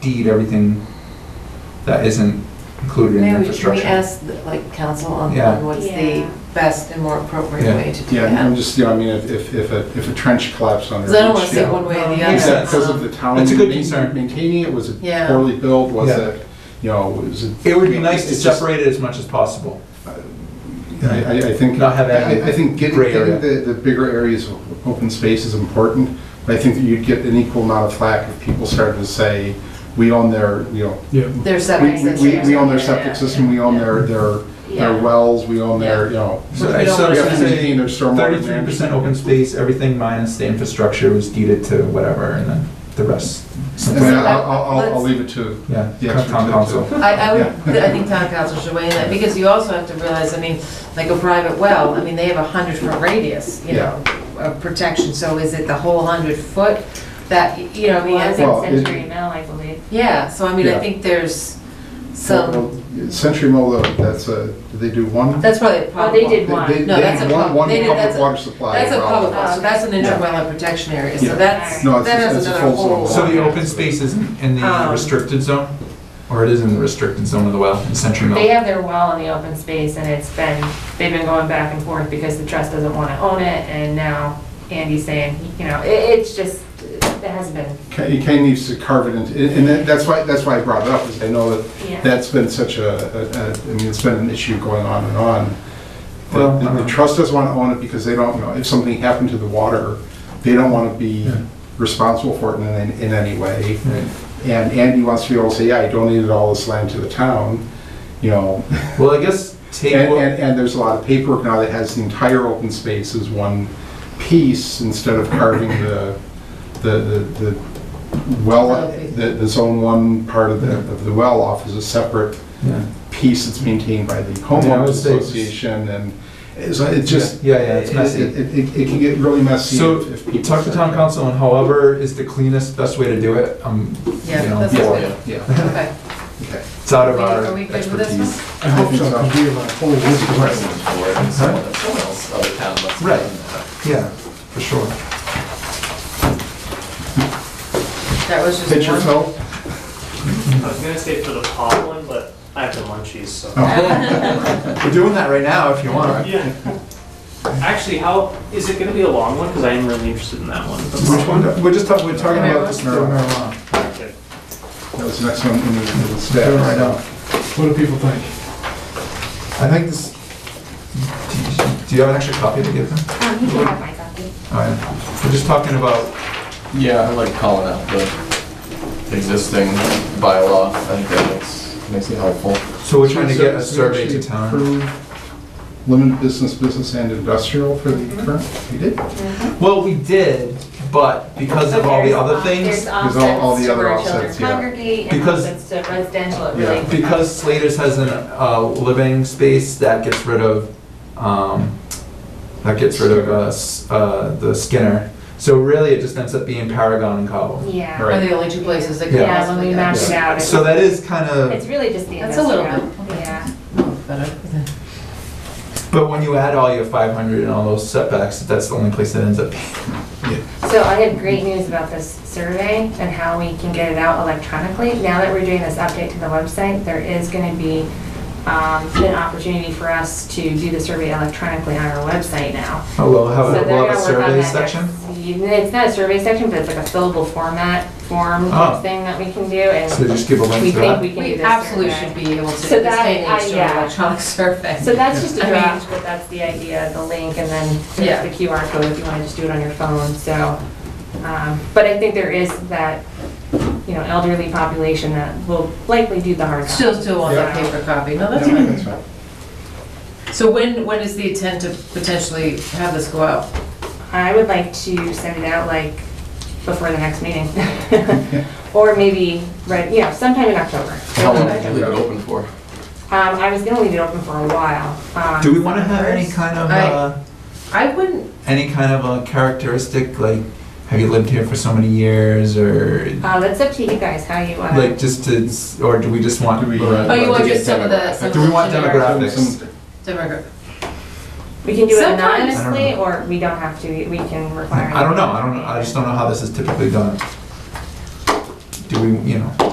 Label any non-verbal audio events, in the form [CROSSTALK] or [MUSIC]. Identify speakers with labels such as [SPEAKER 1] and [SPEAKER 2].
[SPEAKER 1] deed everything that isn't included in
[SPEAKER 2] Maybe we should we
[SPEAKER 1] infrastructure.
[SPEAKER 2] ask, like, council on
[SPEAKER 1] Yeah.
[SPEAKER 2] on what's
[SPEAKER 3] Yeah.
[SPEAKER 2] the best and more appropriate
[SPEAKER 1] Yeah.
[SPEAKER 2] way to do
[SPEAKER 4] Yeah, I'm
[SPEAKER 2] that?
[SPEAKER 4] just, yeah, I mean, if, if, if a, if a trench collapsed under.
[SPEAKER 2] Because I don't
[SPEAKER 4] each-
[SPEAKER 2] want to see
[SPEAKER 1] Yeah.
[SPEAKER 2] one way or the
[SPEAKER 3] Yeah.
[SPEAKER 2] other.
[SPEAKER 4] Exactly, because of
[SPEAKER 2] um,
[SPEAKER 4] the town.
[SPEAKER 1] That's a good
[SPEAKER 4] main-
[SPEAKER 1] concern.
[SPEAKER 4] Maintaining it, was
[SPEAKER 2] Yeah.
[SPEAKER 4] it poorly built, was
[SPEAKER 1] Yeah.
[SPEAKER 4] it, you know, was it?
[SPEAKER 1] It would be nice to
[SPEAKER 4] it's just-
[SPEAKER 1] separate it as much as possible.
[SPEAKER 4] I, I- I think,
[SPEAKER 1] Not have that
[SPEAKER 4] I, I think getting,
[SPEAKER 1] gray
[SPEAKER 4] getting
[SPEAKER 1] area.
[SPEAKER 4] the, the bigger areas of open space is important, but I think that you'd get an equal amount of flack if people started to say, we own their, you know,
[SPEAKER 1] Yeah.
[SPEAKER 2] Their
[SPEAKER 4] we,
[SPEAKER 2] septic
[SPEAKER 4] we-
[SPEAKER 2] system.
[SPEAKER 4] we, we own their
[SPEAKER 3] Yeah, yeah,
[SPEAKER 4] septic system, we own their, their, their
[SPEAKER 3] Yeah.
[SPEAKER 4] wells, we own their, you know.
[SPEAKER 1] So
[SPEAKER 2] Which
[SPEAKER 1] I
[SPEAKER 2] we don't
[SPEAKER 1] so
[SPEAKER 2] want
[SPEAKER 4] We
[SPEAKER 1] it's gonna
[SPEAKER 2] to
[SPEAKER 4] have
[SPEAKER 2] see.
[SPEAKER 4] to
[SPEAKER 1] say
[SPEAKER 4] maintain their stormwater.
[SPEAKER 1] thirty-three percent
[SPEAKER 4] management.
[SPEAKER 1] open space, everything minus the infrastructure was deeded to whatever, and then the rest.
[SPEAKER 4] And
[SPEAKER 1] something
[SPEAKER 4] then
[SPEAKER 1] like that.
[SPEAKER 4] I'll, I'll, I'll- I'll leave it to
[SPEAKER 1] Yeah,
[SPEAKER 4] the expert
[SPEAKER 1] town
[SPEAKER 4] to-
[SPEAKER 1] council.
[SPEAKER 2] I, I would, I think town council should weigh in that, because you also have to realize, I mean, like a private well, I mean, they have a hundred foot radius, you know, of protection, so is it the whole hundred foot that, you know, I mean, I think,
[SPEAKER 4] Well, it-
[SPEAKER 3] Century Mill, I believe.
[SPEAKER 2] yeah, so I mean, I
[SPEAKER 4] Yeah.
[SPEAKER 2] think there's
[SPEAKER 4] Well,
[SPEAKER 2] some,
[SPEAKER 4] Century Mill, though, that's a, did they do one?
[SPEAKER 2] that's probably a
[SPEAKER 3] Well,
[SPEAKER 2] problem.
[SPEAKER 3] they did one.
[SPEAKER 4] They- they-
[SPEAKER 2] No,
[SPEAKER 4] they
[SPEAKER 2] that's
[SPEAKER 4] had
[SPEAKER 2] a
[SPEAKER 4] one-
[SPEAKER 2] pub-
[SPEAKER 4] One
[SPEAKER 2] they did- that's
[SPEAKER 4] public
[SPEAKER 2] a-
[SPEAKER 4] water supply.
[SPEAKER 2] That's a public,
[SPEAKER 4] problem.
[SPEAKER 2] one, so that's an interwetland protection area,
[SPEAKER 4] Yeah.
[SPEAKER 2] so that's,
[SPEAKER 4] No, it's
[SPEAKER 2] that
[SPEAKER 4] just-
[SPEAKER 2] has
[SPEAKER 4] it's a
[SPEAKER 2] another
[SPEAKER 4] full zone.
[SPEAKER 2] whole.
[SPEAKER 1] So the open space is in the
[SPEAKER 2] Um,
[SPEAKER 1] restricted zone? Or it is in the restricted zone of the well, in Century
[SPEAKER 3] They
[SPEAKER 1] Mill?
[SPEAKER 3] have their well in the open space and it's been, they've been going back and forth because the trust doesn't want to own it and now Andy's saying, you know, it, it's just, it has been,
[SPEAKER 4] Kay Kay needs to carve it into, and- and that- that's why, that's why I brought it up, is I know that
[SPEAKER 3] yeah.
[SPEAKER 4] that's been such a, a- a- I mean, it's been an issue going on and on.
[SPEAKER 1] Well, uh-huh.
[SPEAKER 4] The- The trust doesn't want to own it because they don't know, if something happened to the water, they don't want to be
[SPEAKER 1] Yeah.
[SPEAKER 4] responsible for it in, any- in any way.
[SPEAKER 1] Right.
[SPEAKER 4] And Andy wants to be able to say, yeah, I donated all this land to the town, you know,
[SPEAKER 1] Well, I guess take
[SPEAKER 4] And,
[SPEAKER 1] what-
[SPEAKER 4] and, and there's a lot of paperwork now that has the entire open space as one piece instead of carving the, the, the- the well, the, the zone one part of the, of the well off as a separate
[SPEAKER 1] yeah.
[SPEAKER 4] piece that's maintained by the
[SPEAKER 1] Yeah, I
[SPEAKER 4] homeowners
[SPEAKER 1] would say-
[SPEAKER 4] association and it's, it just.
[SPEAKER 1] Yeah, yeah, yeah, it's
[SPEAKER 4] it-
[SPEAKER 1] messy.
[SPEAKER 4] It, it, it can get really messy.
[SPEAKER 1] So,
[SPEAKER 4] if- if people
[SPEAKER 1] talk to
[SPEAKER 4] start-
[SPEAKER 1] town council on however is the cleanest, best way to do it. Um,
[SPEAKER 2] Yeah,
[SPEAKER 1] you know,
[SPEAKER 2] that's
[SPEAKER 1] for
[SPEAKER 2] good.
[SPEAKER 1] it.
[SPEAKER 4] Yeah,
[SPEAKER 2] Okay.
[SPEAKER 4] [LAUGHS] okay.
[SPEAKER 1] It's out of
[SPEAKER 2] Are
[SPEAKER 1] our
[SPEAKER 2] we good with this one?
[SPEAKER 1] expertise.
[SPEAKER 5] I hope so. I do have a whole list of questions.
[SPEAKER 6] precedent for it, and someone that someone else, other town must have
[SPEAKER 1] Right.
[SPEAKER 6] done that.
[SPEAKER 1] Yeah, for sure.
[SPEAKER 2] That was just one.
[SPEAKER 4] Pitcher fell?
[SPEAKER 7] I was gonna say for the pot one, but I have the munchies, so.
[SPEAKER 1] We're doing that right now if you want.
[SPEAKER 7] Yeah. Actually, how, is it gonna be a long one? Because I am really interested in that one.
[SPEAKER 1] Which one? We're just talking, we're talking about this
[SPEAKER 4] Marijuana.
[SPEAKER 1] marijuana.
[SPEAKER 7] Okay.
[SPEAKER 4] That was the next one in the, in the
[SPEAKER 1] Doing it
[SPEAKER 4] staff.
[SPEAKER 1] right now.
[SPEAKER 5] What do people think?
[SPEAKER 1] I think this, do you- do you have an extra copy to give them?
[SPEAKER 3] Um, you can have my copy.
[SPEAKER 1] All right. We're just talking about,
[SPEAKER 6] Yeah, I like calling out the existing bylaw, I think that makes, makes it helpful.
[SPEAKER 1] so we're trying to get a
[SPEAKER 4] So
[SPEAKER 1] survey to
[SPEAKER 4] actually
[SPEAKER 1] town.
[SPEAKER 4] approve Limited business, business and industrial for the current, we did,
[SPEAKER 1] Well, we did, but because of all the
[SPEAKER 2] uh,
[SPEAKER 1] other things,
[SPEAKER 4] There's all- all the other offsets, yeah.
[SPEAKER 3] Congregate and
[SPEAKER 1] Because-
[SPEAKER 3] offsets to residential, it
[SPEAKER 4] Yeah.
[SPEAKER 3] really.
[SPEAKER 1] because Slater's has an, uh, living space that gets rid of, um, that gets rid of, uh, s- uh, the Skinner. So really, it just ends up being Paragon and Cobble.
[SPEAKER 3] Yeah,
[SPEAKER 4] Right.
[SPEAKER 2] Are the only two places that could
[SPEAKER 3] yeah, when
[SPEAKER 2] possibly
[SPEAKER 3] we
[SPEAKER 2] go.
[SPEAKER 3] mapped it out, it's,
[SPEAKER 1] So that is kind of,
[SPEAKER 3] it's really just the
[SPEAKER 2] That's a little
[SPEAKER 3] industrial,
[SPEAKER 2] bit.
[SPEAKER 3] yeah.
[SPEAKER 2] Oh, better.
[SPEAKER 1] but when you add all your five hundred and all those setbacks, that's the only place that ends up being. [LAUGHS]
[SPEAKER 3] So I have great news about this survey and how we can get it out electronically. Now that we're doing this update to the website, there is going to be um, an opportunity for us to do the survey electronically on our website now.
[SPEAKER 1] Oh, we'll have,
[SPEAKER 3] So
[SPEAKER 1] a-
[SPEAKER 3] they're
[SPEAKER 1] we'll have a
[SPEAKER 3] gonna work on
[SPEAKER 1] survey
[SPEAKER 3] that
[SPEAKER 1] section?
[SPEAKER 3] next- It's not a survey section, but it's like a fillable format form
[SPEAKER 1] Oh.
[SPEAKER 3] thing that we can do
[SPEAKER 1] So
[SPEAKER 3] and
[SPEAKER 1] just give a
[SPEAKER 3] we
[SPEAKER 1] link to
[SPEAKER 3] think
[SPEAKER 1] that?
[SPEAKER 3] we can do
[SPEAKER 2] We
[SPEAKER 3] this.
[SPEAKER 2] absolutely
[SPEAKER 3] survey.
[SPEAKER 2] should be able to,
[SPEAKER 3] So
[SPEAKER 2] this
[SPEAKER 3] that-
[SPEAKER 2] day and
[SPEAKER 3] I-
[SPEAKER 2] age, do an
[SPEAKER 3] yeah.
[SPEAKER 2] electronic [LAUGHS] survey.
[SPEAKER 3] So that's just a
[SPEAKER 2] I mean-
[SPEAKER 3] draft, but that's the idea, the link, and then
[SPEAKER 2] Yeah.
[SPEAKER 3] there's the QR code if you want to just do it on your phone, so. um, But I think there is that, you know, elderly population that will likely do the hard copy.
[SPEAKER 2] Still, still want that
[SPEAKER 3] So-
[SPEAKER 2] paper copy, no, that's
[SPEAKER 4] Yeah,
[SPEAKER 2] fine.
[SPEAKER 4] that's right.
[SPEAKER 2] So when, when is the intent to potentially have this go out?
[SPEAKER 3] I would like to send it out like before the
[SPEAKER 1] [LAUGHS]
[SPEAKER 3] next meeting. [LAUGHS] Or maybe, right, you know, sometime in October.
[SPEAKER 6] How long do you leave it open for?
[SPEAKER 3] Um, I was gonna leave it open for a while. um,
[SPEAKER 1] Do we want to have any kind of,
[SPEAKER 2] I-
[SPEAKER 1] uh,
[SPEAKER 2] I wouldn't,
[SPEAKER 1] any kind of a characteristic, like, have you lived here for so many years, or,
[SPEAKER 3] Uh, that's up to you guys, how you uh, want.
[SPEAKER 1] like, just to, s- or do we just want?
[SPEAKER 4] Do we-
[SPEAKER 2] oh, you
[SPEAKER 6] to
[SPEAKER 2] want
[SPEAKER 6] get
[SPEAKER 2] just some of the, some of
[SPEAKER 1] Do we
[SPEAKER 2] the
[SPEAKER 1] want
[SPEAKER 2] generic-
[SPEAKER 1] demographics?
[SPEAKER 4] Some-
[SPEAKER 2] Demographic.
[SPEAKER 3] We can do it
[SPEAKER 2] Sometimes- I don't
[SPEAKER 3] anonymously,
[SPEAKER 1] know.
[SPEAKER 3] or we don't have to, we can require.
[SPEAKER 1] I don't know, I don't, know. I just don't know how this is typically done. Do we, you know?